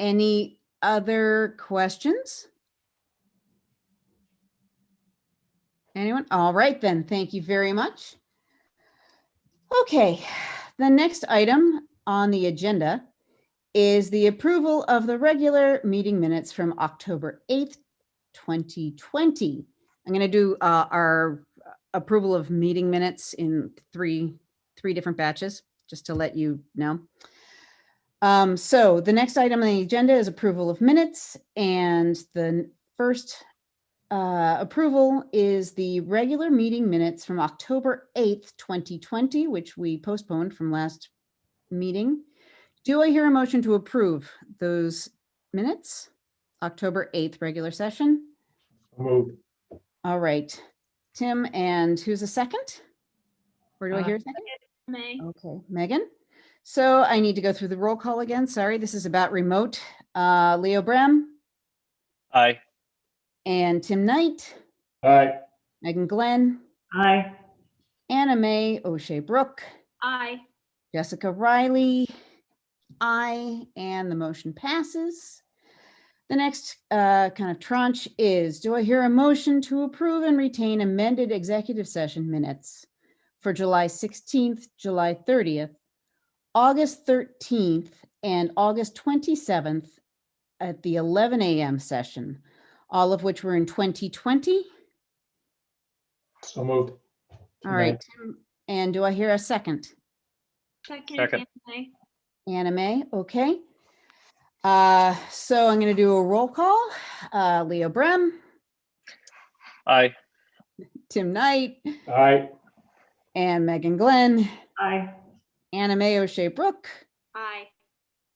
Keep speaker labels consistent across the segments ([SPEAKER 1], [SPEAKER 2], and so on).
[SPEAKER 1] Any other questions? Anyone? All right, then. Thank you very much. Okay, the next item on the agenda is the approval of the regular meeting minutes from October 8th, 2020. I'm going to do uh, our approval of meeting minutes in three, three different batches, just to let you know. Um, so the next item on the agenda is approval of minutes and the n- first uh, approval is the regular meeting minutes from October 8th, 2020, which we postponed from last meeting. Do I hear a motion to approve those minutes? October 8th, regular session.
[SPEAKER 2] Move.
[SPEAKER 1] All right, Tim, and who's a second? Where do I
[SPEAKER 3] Uh,
[SPEAKER 1] hear a second?
[SPEAKER 4] May.
[SPEAKER 1] Okay, Megan. So I need to go through the roll call again. Sorry, this is about remote. Uh, Leo Brem
[SPEAKER 3] Aye.
[SPEAKER 1] and Tim Knight,
[SPEAKER 2] Aye.
[SPEAKER 1] Megan Glenn,
[SPEAKER 5] Aye.
[SPEAKER 1] Anna Mae O'Shea Brooke,
[SPEAKER 4] Aye.
[SPEAKER 1] Jessica Riley. Aye, and the motion passes. The next uh, kind of tranche is, do I hear a motion to approve and retain amended executive session minutes for July 16th, July 30th, August 13th, and August 27th at the 11 a.m. session, all of which were in 2020?
[SPEAKER 2] So moved.
[SPEAKER 1] All
[SPEAKER 2] Aye.
[SPEAKER 1] right, Tim, and do I hear a second?
[SPEAKER 4] Second.
[SPEAKER 3] Second.
[SPEAKER 4] Anna May.
[SPEAKER 1] Anime, okay. Uh, so I'm gonna do a roll call. Uh, Leo Brem,
[SPEAKER 3] Aye.
[SPEAKER 1] Tim Knight,
[SPEAKER 2] Aye.
[SPEAKER 1] and Megan Glenn,
[SPEAKER 5] Aye.
[SPEAKER 1] Anime O'Shea Brooke,
[SPEAKER 4] Aye.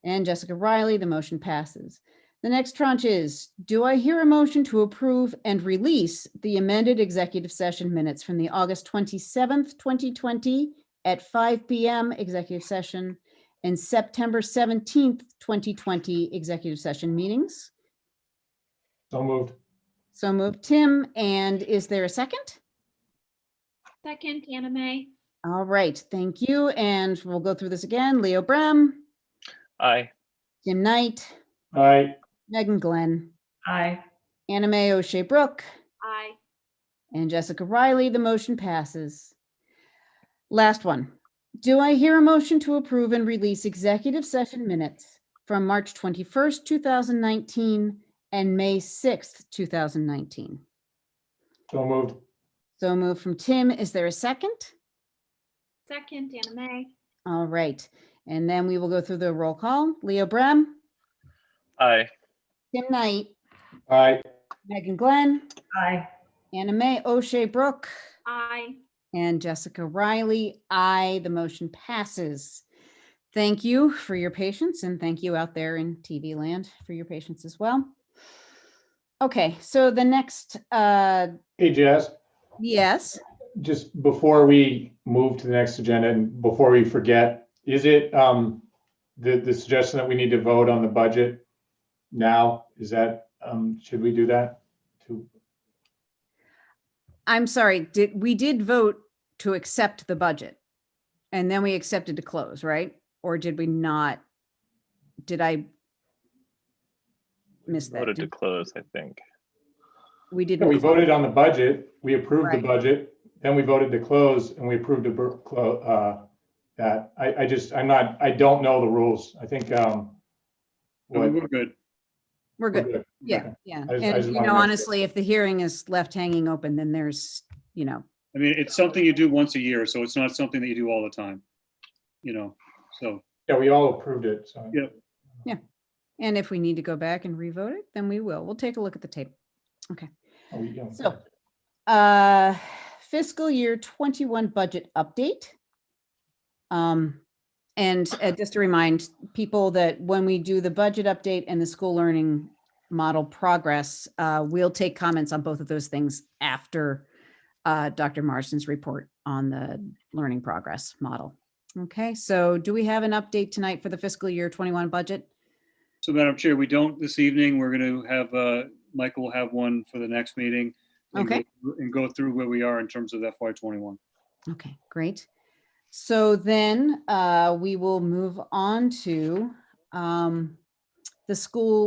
[SPEAKER 1] and Jessica Riley. The motion passes. The next tranche is, do I hear a motion to approve and release the amended executive session minutes from the August 27th, 2020 at 5 PM executive session and September 17th, 2020 executive session meetings?
[SPEAKER 2] So moved.
[SPEAKER 1] So moved, Tim. And is there a second?
[SPEAKER 4] Second. Anna May.
[SPEAKER 1] All right, thank you. And we'll go through this again. Leo Brem,
[SPEAKER 3] Aye.
[SPEAKER 1] Tim Knight,
[SPEAKER 2] Aye.
[SPEAKER 1] Megan Glenn,
[SPEAKER 5] Aye.
[SPEAKER 1] Anna Mae O'Shea Brooke,
[SPEAKER 4] Aye.
[SPEAKER 1] and Jessica Riley. The motion passes. Last one. Do I hear a motion to approve and release executive session minutes from March 21st, 2019 and May 6th, 2019?
[SPEAKER 2] So moved.
[SPEAKER 1] So moved from Tim. Is there a second?
[SPEAKER 4] Second. Anna May.
[SPEAKER 1] All right, and then we will go through the roll call. Leo Brem,
[SPEAKER 3] Aye.
[SPEAKER 1] Tim Knight,
[SPEAKER 2] Aye.
[SPEAKER 1] Megan Glenn,
[SPEAKER 5] Aye.
[SPEAKER 1] Anna Mae O'Shea Brooke,
[SPEAKER 4] Aye.
[SPEAKER 1] and Jessica Riley. Aye, the motion passes. Thank you for your patience and thank you out there in TV land for your patience as well. Okay, so the next, uh,
[SPEAKER 2] Hey, Jess,
[SPEAKER 1] yes,
[SPEAKER 2] just before we move to the next agenda and before we forget, is it um the the suggestion that we need to vote on the budget now? Is that um should we do that? To
[SPEAKER 1] I'm sorry, did, we did vote to accept the budget. And then we accepted to close, right? Or did we not? Did I miss that?
[SPEAKER 3] Voted to
[SPEAKER 1] Did-
[SPEAKER 3] close, I think.
[SPEAKER 1] We
[SPEAKER 2] Yeah, we
[SPEAKER 1] didn't,
[SPEAKER 2] voted on the budget, we approved the
[SPEAKER 1] Right.
[SPEAKER 2] budget, then we voted to close and we approved to bur- clo- uh that. I I just, I'm not, I don't know the rules. I think um what-
[SPEAKER 3] good.
[SPEAKER 1] we're
[SPEAKER 2] we're
[SPEAKER 1] good.
[SPEAKER 2] good.
[SPEAKER 1] Yeah,
[SPEAKER 2] Okay.
[SPEAKER 1] yeah.
[SPEAKER 2] I just- I
[SPEAKER 1] And
[SPEAKER 2] just
[SPEAKER 1] you
[SPEAKER 2] wanna
[SPEAKER 1] know,
[SPEAKER 2] make sure.
[SPEAKER 1] honestly, if the hearing is left hanging open, then there's, you know,
[SPEAKER 6] I mean, it's something you do once a year, so it's not something that you do all the time. You know, so,
[SPEAKER 2] Yeah, we all approved it, so.
[SPEAKER 6] Yeah.
[SPEAKER 1] and if we need to go back and revote it, then we will. We'll take a look at the tape.
[SPEAKER 2] Oh, we- yeah.
[SPEAKER 1] So, uh, fiscal year 21 budget update. Um, And uh, just to remind people that when we do the budget update and the school learning model progress, uh, we'll take comments on both of those things after uh, Dr. Marston's report on the learning progress model. Okay, so do we have an update tonight for the fiscal year 21 budget?
[SPEAKER 6] so Madam Chair, we don't this evening. We're going to have, uh, Michael will have one for the next meeting. and go-
[SPEAKER 1] Okay.
[SPEAKER 6] And go through where we are in terms of FY twenty-one.
[SPEAKER 1] Okay, great. So then uh, we will move on to um, the school